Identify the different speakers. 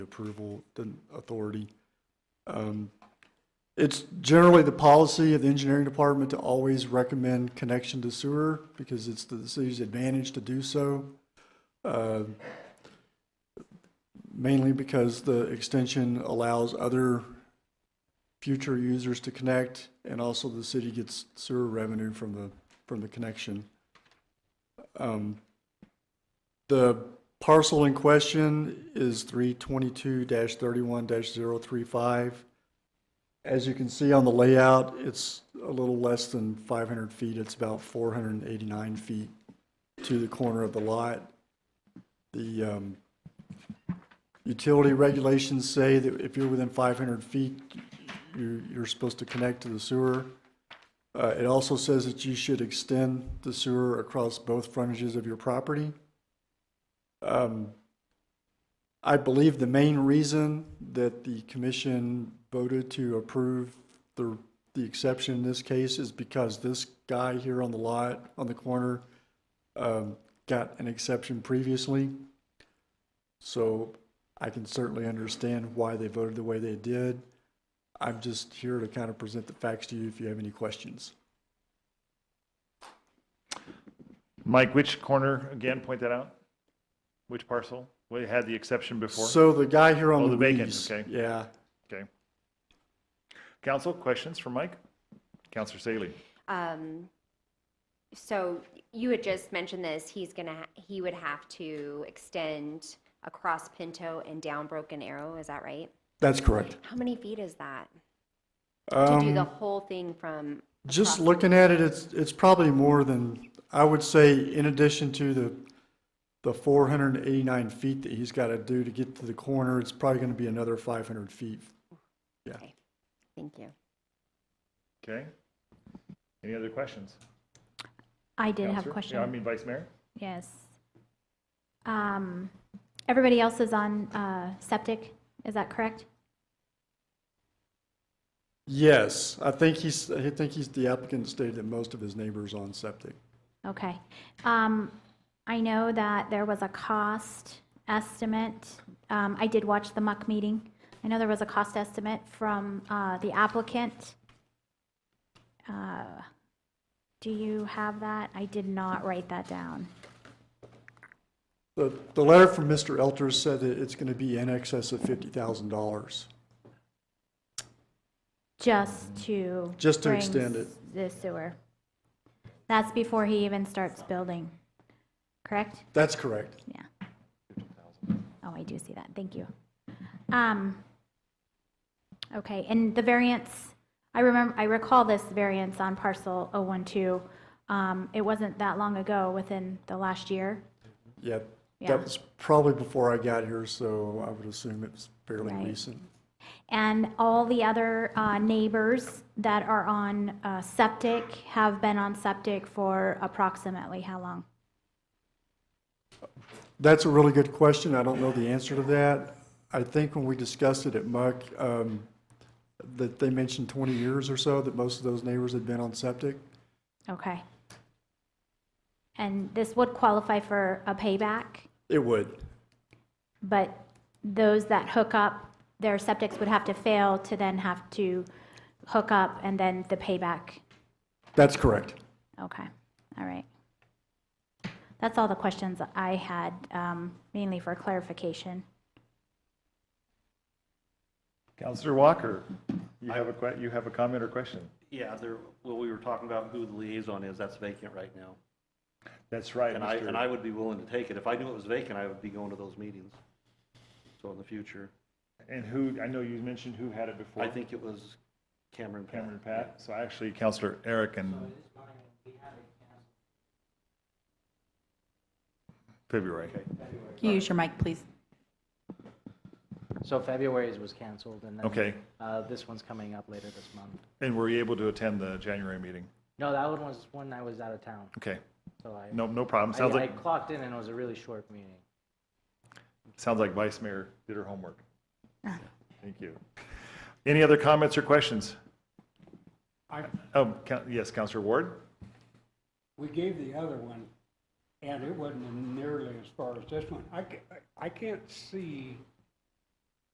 Speaker 1: approval the authority. Um, It's generally the policy of the engineering department to always recommend connection to sewer because it's to the city's advantage to do so. Uh, Mainly because the extension allows other future users to connect and also the city gets sewer revenue from the, from the connection. Um, the parcel in question is three twenty-two thirty-one 35 As you can see on the layout, it's a little less than five hundred feet. It's about four hundred and eighty-nine feet to the corner of the lot. The, um, utility regulations say that if you're within five hundred feet, you, you're supposed to connect to the sewer. Uh, it also says that you should extend the sewer across both frontages of your property. Um, I believe the main reason that the commission voted to approve the, the exception in this case is because this guy here on the lot, on the corner, um, got an exception previously. So I can certainly understand why they voted the way they did. I'm just here to kind of present the facts to you if you have any questions.
Speaker 2: Mike, which corner, again, point that out? Which parcel? We had the exception before.
Speaker 1: So the guy here on
Speaker 2: Oh,
Speaker 1: the
Speaker 2: the vacant,
Speaker 1: Reeves,
Speaker 2: okay.
Speaker 1: yeah,
Speaker 2: Okay. Council, questions for Mike? Counselor Saley?
Speaker 3: Um, so you had just mentioned this, he's gonna, ha- he would have to extend across Pinto and down Broken Arrow, is that right?
Speaker 1: that's correct.
Speaker 3: How many feet is that? To do
Speaker 1: Um,
Speaker 3: the whole thing from,
Speaker 1: Just looking at it, it's, it's probably more than, I would say, in addition to the, the four hundred and eighty-nine feet that he's gotta do to get to the corner, it's probably gonna be another five hundred feet.
Speaker 3: thank you.
Speaker 2: Okay. Any other questions?
Speaker 4: I did have
Speaker 2: Counselor?
Speaker 4: a
Speaker 2: Yeah, I
Speaker 4: question.
Speaker 2: mean, Vice Mayor?
Speaker 4: Yes. Um, Everybody else is on uh, septic, is that correct?
Speaker 1: Yes, I think he's, I think he's, the applicant stated that most of his neighbors on septic.
Speaker 4: Okay. Um, I know that there was a cost estimate. Um, I did watch the muck meeting. I know there was a cost estimate from uh, the applicant. Uh, Do you have that? I did not write that down.
Speaker 1: The, the letter from Mr. Elter said that it's gonna be in excess of fifty thousand dollars.
Speaker 4: Just to.
Speaker 1: Just to
Speaker 4: bring
Speaker 1: extend it.
Speaker 4: s- The sewer. That's before he even starts building, correct?
Speaker 1: That's correct.
Speaker 4: Yeah. Oh, I do see that, thank you. Um, okay, and the variance, I remember, I recall this variance on parcel 012. Um, it wasn't that long ago, within the last year,
Speaker 1: Yeah,
Speaker 4: Yeah.
Speaker 1: that was probably before I got here, so I would assume it's fairly
Speaker 4: Right.
Speaker 1: recent.
Speaker 4: And all the other uh, neighbors that are on uh, septic have been on septic for approximately how long?
Speaker 1: That's a really good question. I don't know the answer to that. I think when we discussed it at Muck, um, that they mentioned 20 years or so, that most of those neighbors had been on septic.
Speaker 4: Okay. And this would qualify for a payback,
Speaker 1: It would.
Speaker 4: but those that hook up, their septics would have to fail to then have to hook up and then the payback.
Speaker 1: That's correct.
Speaker 4: Okay, all right. That's all the questions I had, um, mainly for clarification.
Speaker 2: Counselor Walker, you have a que, you have a comment or question?
Speaker 5: Yeah, there, well, we were talking about who the liaison is, that's vacant right now.
Speaker 2: That's right,
Speaker 5: And I, and I
Speaker 2: Mr.
Speaker 5: would be willing to take it. If I knew it was vacant, I would be going to those meetings. So in the future,
Speaker 2: And who, I know you mentioned who had it before.
Speaker 5: I think it was Cameron Pat.
Speaker 2: Cameron Pat, so actually Counselor Eric and. February.
Speaker 6: Can you use your mic, please?
Speaker 7: So February's was canceled, and then
Speaker 2: Okay,
Speaker 7: uh, this one's coming up later this month.
Speaker 2: and were you able to attend the January meeting?
Speaker 7: No, that one was when I was out of town,
Speaker 2: Okay,
Speaker 7: so I,
Speaker 2: no, no problem. Sounds
Speaker 7: I I
Speaker 2: like,
Speaker 7: clocked in and it was a really short meeting.
Speaker 2: sounds like Vice Mayor did her homework.
Speaker 7: Ah.
Speaker 2: Thank you. Any other comments or questions? Oh, Coun- yes, Counselor Ward?
Speaker 8: We gave the other one, and it wasn't nearly as far as this one. I, ca- I can't see